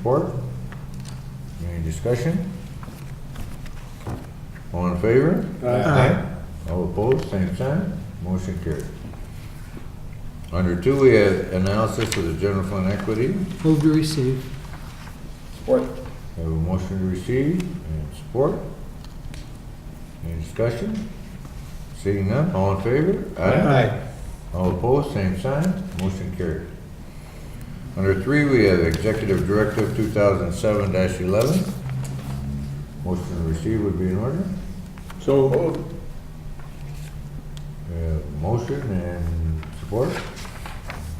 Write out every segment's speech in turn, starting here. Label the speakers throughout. Speaker 1: Support? Any discussion? All in favor? All opposed, same sign, motion carried. Under two, we have analysis of the general fund equity.
Speaker 2: Move to receive.
Speaker 3: Support.
Speaker 1: Have a motion to receive and support. Any discussion? Seeing none, all in favor? All opposed, same sign, motion carried. Under three, we have Executive Directive two thousand seven eleven. Motion to receive would be in order.
Speaker 3: So moved.
Speaker 1: We have motion and support.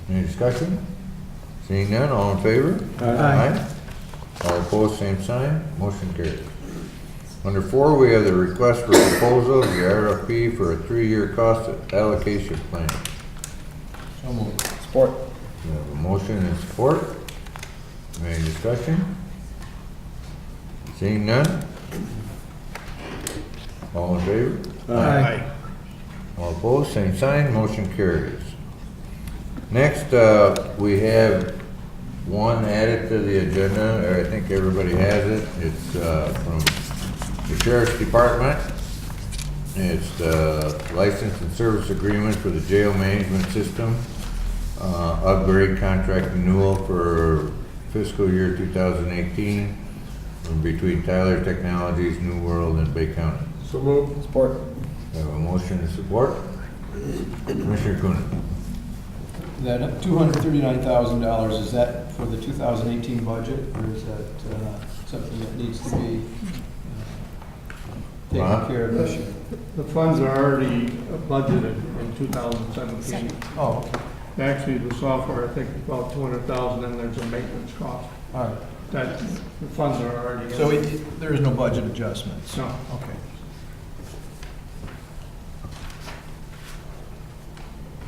Speaker 1: Any discussion? Seeing none, all in favor?
Speaker 2: Aye.
Speaker 1: All opposed, same sign, motion carried. Under four, we have the request for proposal, the RFP for a three-year cost allocation plan.
Speaker 3: So moved. Support.
Speaker 1: We have a motion and support. Any discussion? Seeing none? All in favor?
Speaker 2: Aye.
Speaker 1: All opposed, same sign, motion carries. Next, uh, we have one added to the agenda, or I think everybody has it. It's uh, from the Sheriff's Department. It's the license and service agreement for the jail management system, uh, upgrade contract renewal for fiscal year 2018 between Tyler Technologies, New World, and Bay County.
Speaker 3: So moved. Support.
Speaker 1: We have a motion to support. Commissioner Coonan.
Speaker 4: That two hundred thirty-nine thousand dollars, is that for the two thousand eighteen budget, or is that uh, something that needs to be uh,
Speaker 1: Ron?
Speaker 4: taken care of this year?
Speaker 5: The funds are already budgeted in 2017.
Speaker 4: Oh, okay,
Speaker 5: Actually, the software, I think, is about 200,000, and there's a maintenance cost.
Speaker 4: all right.
Speaker 5: That, the funds are already. in.
Speaker 4: So it- there is no budget adjustments?
Speaker 5: No.
Speaker 4: Okay.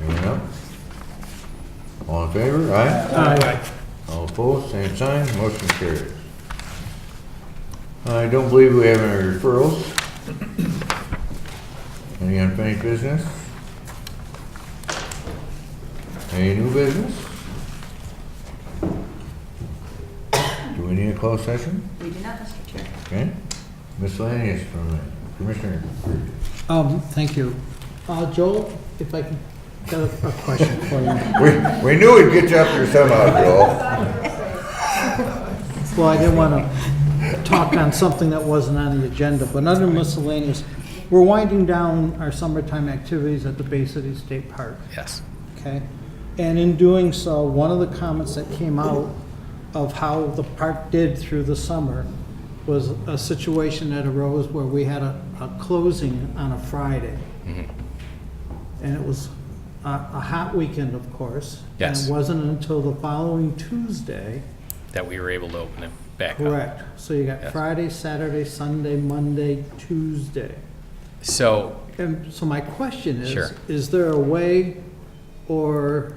Speaker 1: Anyone else? All in favor? Aye.
Speaker 2: Aye.
Speaker 1: All opposed? Same sign. Motion carries. I don't believe we have any referrals. Any unfinished business? Any new business? Do we need a closed session?
Speaker 6: We do not, Mr. Chair.
Speaker 1: Okay. Miscellaneous from Commissioner. Creed.
Speaker 2: Um, thank you. Uh, Joel, if I can, got a a question for you.
Speaker 1: We, we knew we'd get you up here somehow, Joel.
Speaker 2: Well, I didn't want to talk on something that wasn't on the agenda, but under miscellaneous, we're winding down our summertime activities at the Bay City State Park.
Speaker 7: Yes.
Speaker 2: Okay? And in doing so, one of the comments that came out of how the park did through the summer was a situation that arose where we had a, a closing on a Friday.
Speaker 7: Mm-hmm.
Speaker 2: And it was a, a hot weekend, of course.
Speaker 7: Yes.
Speaker 2: And it wasn't until the following Tuesday,
Speaker 7: That we were able to open it back up.
Speaker 2: correct? So you got
Speaker 7: Yes.
Speaker 2: Friday, Saturday, Sunday, Monday, Tuesday.
Speaker 7: So
Speaker 2: And so my question
Speaker 7: Sure.
Speaker 2: is, is there a way, or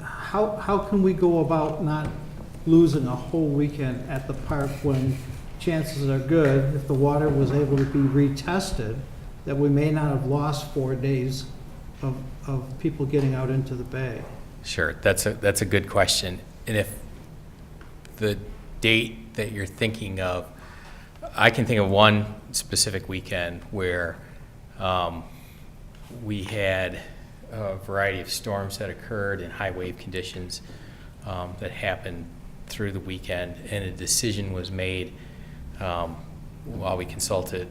Speaker 2: how, how can we go about not losing a whole weekend at the park when chances are good, if the water was able to be retested, that we may not have lost four days of, of people getting out into the bay?
Speaker 7: Sure, that's a, that's a good question. And if the date that you're thinking of, I can think of one specific weekend where um, we had a variety of storms that occurred and high wave conditions um, that happened through the weekend, and a decision was made um, while we consulted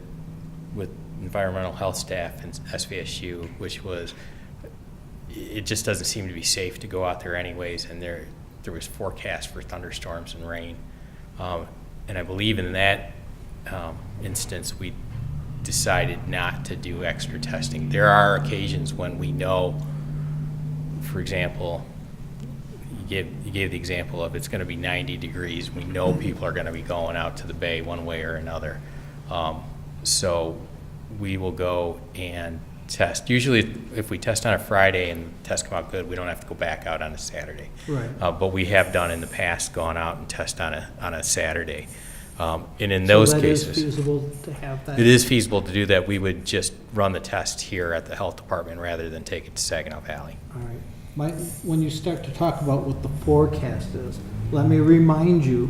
Speaker 7: with environmental health staff and SVSU, which was it just doesn't seem to be safe to go out there anyways, and there, there was forecast for thunderstorms and rain. Um, And I believe in that um, instance, we decided not to do extra testing. There are occasions when we know, for example, you gave, you gave the example of it's going to be 90 degrees. We know people are going to be going out to the bay one way or another. Um, So we will go and test. Usually, if we test on a Friday and tests come out good, we don't have to go back out on a Saturday.
Speaker 2: Right.
Speaker 7: Uh, But we have done in the past, gone out and test on a, on a Saturday. Um, And in
Speaker 2: So
Speaker 7: those
Speaker 2: that
Speaker 7: cases.
Speaker 2: is feasible to have that?
Speaker 7: It is feasible to do that. We would just run the test here at the health department rather than take it to Saginaw Valley.
Speaker 2: All right. my, when you start to talk about what the forecast is, let me remind you